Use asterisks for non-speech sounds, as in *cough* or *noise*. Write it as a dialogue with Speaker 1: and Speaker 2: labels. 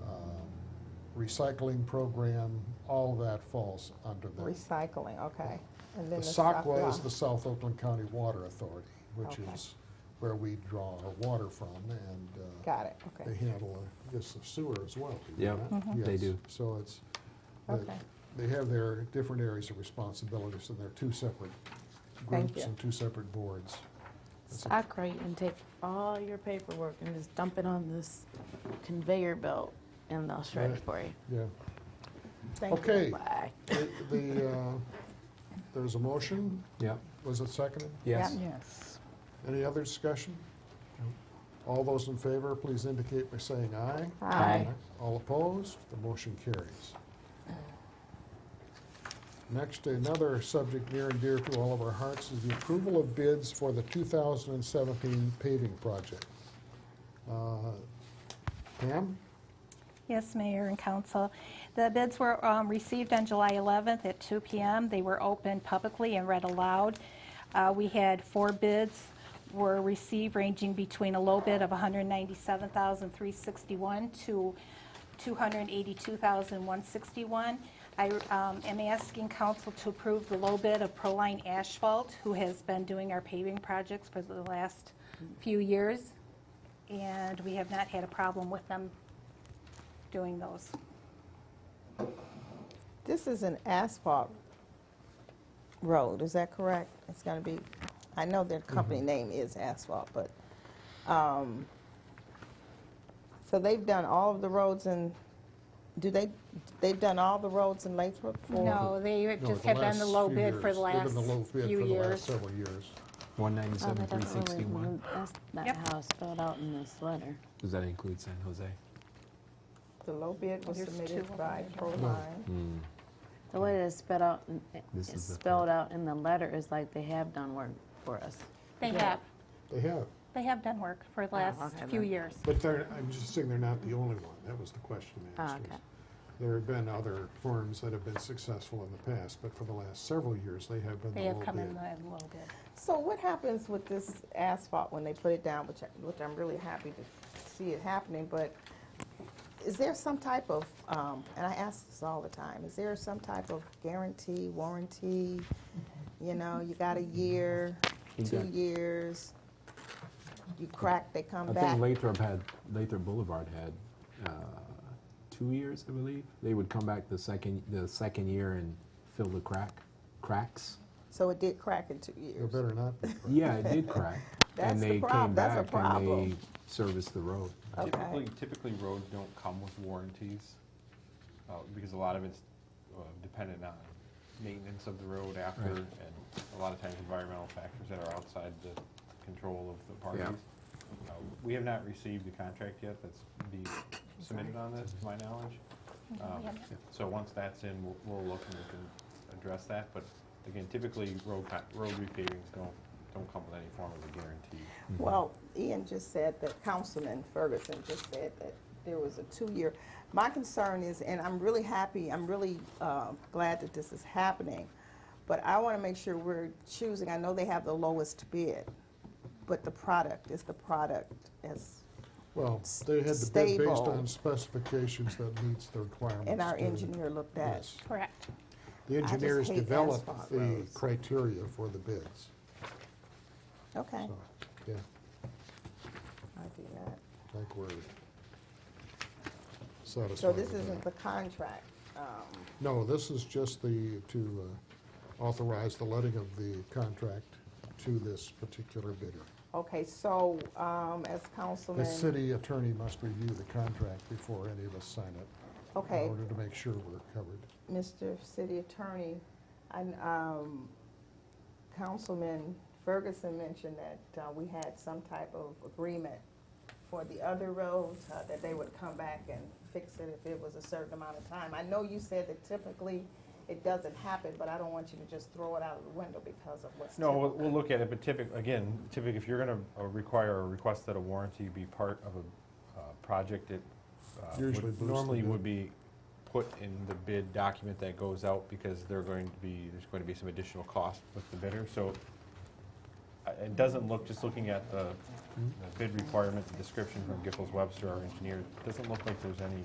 Speaker 1: uh, recycling program, all of that falls under that.
Speaker 2: Recycling, okay. And
Speaker 1: The
Speaker 2: then
Speaker 1: SACWA is
Speaker 2: SACWA.
Speaker 1: the South Oakland County Water Authority, which
Speaker 2: Okay.
Speaker 1: is where we draw our water from, and uh,
Speaker 2: Got it,
Speaker 1: they
Speaker 2: okay.
Speaker 1: handle, uh, I guess, the sewer as well. do they
Speaker 3: Yeah,
Speaker 1: not?
Speaker 3: Mhm. they
Speaker 1: Yes.
Speaker 3: do.
Speaker 1: So it's, they-
Speaker 2: Mm-hmm. Okay.
Speaker 1: they have their different areas of responsibility, so they're two separate
Speaker 2: Thank
Speaker 1: groups
Speaker 2: you.
Speaker 1: and two separate boards.
Speaker 4: Sacrate and take all your paperwork and just dump it on this conveyor belt and they'll shred it
Speaker 1: Right.
Speaker 4: for you.
Speaker 1: Yeah.
Speaker 4: Thank
Speaker 1: Okay.
Speaker 4: you. Bye.
Speaker 1: The- The, uh, there's a motion,
Speaker 3: Yep.
Speaker 1: was it seconded?
Speaker 2: Oh,
Speaker 3: Yes.
Speaker 2: Yes.
Speaker 1: Any other discussion? All those in favor, please indicate by saying aye.
Speaker 3: Aye.
Speaker 1: All opposed, the motion carries. Next, another subject near and dear to all of our hearts is the approval of bids for the 2017 paving project. Uh, Pam?
Speaker 5: Yes, Mayor and Council. The bids were um, received on July 11th at 2 PM. They were opened publicly and read aloud. Uh, We had four bids were received ranging between a low bid of $197,361 to $282,161. I um, am asking council to approve the low bid of Proline Asphalt, who has been doing our paving projects for the last few years, and we have not had a problem with them doing those.
Speaker 2: This is an asphalt road, is that correct? It's gonna be, I know their
Speaker 1: Mm-hmm.
Speaker 2: company name is asphalt, but, um, so they've done all of the roads in, do they, they've done all the roads in Lathrop for?
Speaker 5: No, they
Speaker 1: No,
Speaker 5: just have been the
Speaker 1: last
Speaker 5: low
Speaker 1: few
Speaker 5: bid for
Speaker 1: years.
Speaker 5: the
Speaker 1: Ththey've
Speaker 5: last
Speaker 1: been the low bid
Speaker 5: few
Speaker 1: For the last
Speaker 5: years.
Speaker 1: several years.
Speaker 3: One
Speaker 4: Oh,
Speaker 3: ninety-seven,
Speaker 4: that
Speaker 3: three
Speaker 4: doesn't really-
Speaker 3: sixty-one.
Speaker 4: That's not
Speaker 5: Yep.
Speaker 4: how it's spelled out in this letter.
Speaker 3: Does that include San Jose?
Speaker 2: The low bid was
Speaker 5: There's two
Speaker 2: submitted
Speaker 5: of them.
Speaker 2: by Proline.
Speaker 4: The way that it's spelled out, in-
Speaker 3: This
Speaker 4: it's
Speaker 3: is the part.
Speaker 4: spelled out in the letter is like they have done work for us.
Speaker 5: They have,
Speaker 1: They have,
Speaker 5: they have done work for the
Speaker 4: Oh,
Speaker 5: last
Speaker 4: okay,
Speaker 5: few
Speaker 4: then.
Speaker 5: years.
Speaker 1: but they're, I'm just saying they're not the only one. That was the question
Speaker 2: Ah,
Speaker 1: I asked.
Speaker 4: Okay.
Speaker 1: was There have been other firms that have been successful in the past, but for the last several years, they have been the
Speaker 5: They
Speaker 1: low
Speaker 5: have
Speaker 1: bid.
Speaker 5: come in the low bid.
Speaker 2: So what happens with this asphalt when they put it down, which, I- which I'm really happy to see it happening, but is there some type of, um, and I ask this all the time, is there some type of guarantee, warranty? You know, you got a year, two
Speaker 3: Exact-
Speaker 2: years, you crack, they come
Speaker 3: I
Speaker 2: back.
Speaker 3: think Lathrop had, Lathrop Boulevard had, uh, two years, I believe. They would come back the second, the second year and fill the crack, cracks.
Speaker 2: So it did crack in two
Speaker 1: There
Speaker 2: years.
Speaker 1: better not be.
Speaker 3: *laughs*
Speaker 1: correct?
Speaker 3: Yeah, it did crack.
Speaker 2: *laughs* That's
Speaker 3: And
Speaker 2: the
Speaker 3: they
Speaker 2: prob-
Speaker 3: came
Speaker 2: that's a
Speaker 3: back and they
Speaker 2: problem.
Speaker 3: serviced the road.
Speaker 2: Okay.
Speaker 6: Typically, typically roads don't come with warranties, uh, because a lot of it's uh, dependent on maintenance of the road after,
Speaker 3: Right.
Speaker 6: and a lot of times environmental factors that are outside the control of the
Speaker 3: Yeah.
Speaker 6: parties. Uh, We have not received the contract yet that's being submitted on this, to my knowledge. Um, So once that's in, we'll- we'll look and we can address that, but again, typically, road, con- road repavings don't, don't come with any form of a guarantee.
Speaker 1: Mm-hmm.
Speaker 2: Well, Ian just said that, Councilman Ferguson just said that there was a two-year. My concern is, and I'm really happy, I'm really uh, glad that this is happening, but I want to make sure we're choosing, I know they have the lowest bid, but the product is the product as,
Speaker 1: Well, they had the bid based
Speaker 2: stable.
Speaker 1: on specifications that meets the requirements.
Speaker 2: and our
Speaker 1: to-
Speaker 2: engineer looked at.
Speaker 1: Yes.
Speaker 5: Correct.
Speaker 1: The
Speaker 2: just
Speaker 1: engineers
Speaker 2: hate
Speaker 1: develop
Speaker 2: asphalt
Speaker 1: the
Speaker 2: roads.
Speaker 1: criteria for the bids,
Speaker 2: Okay,
Speaker 1: so, yeah,
Speaker 2: I do that.
Speaker 1: I think we're satisfied.
Speaker 2: So this
Speaker 1: with that.
Speaker 2: isn't the contract. um,
Speaker 1: No, this is just the, to uh, authorize the letting of the contract to this particular bidder.
Speaker 2: Okay, so um, as
Speaker 1: The
Speaker 2: Councilman,
Speaker 1: city attorney must review the contract before any of us sign it, in
Speaker 2: okay,
Speaker 1: order to make sure we're covered.
Speaker 2: Mr. City Attorney, and um, Councilman Ferguson mentioned that uh, we had some type of agreement for the other roads, uh, that they would come back and fix it if it was a certain amount of time. I know you said that typically it doesn't happen, but I don't want you to just throw it out of the window because of what's
Speaker 6: No, we'll,
Speaker 2: typical.
Speaker 6: we'll look at it, but typically, again, typically, if you're gonna uh, require or request that a warranty be part of a, uh, project, it uh, would-
Speaker 1: Usually boosts the
Speaker 6: normally
Speaker 1: bid.
Speaker 6: would be put in the bid document that goes out, because they're going to be, there's going to be some additional cost with the bidder, so uh, it doesn't look, just looking at the the bid requirement, the description from Giffords Webster, our engineer, it doesn't look like there's any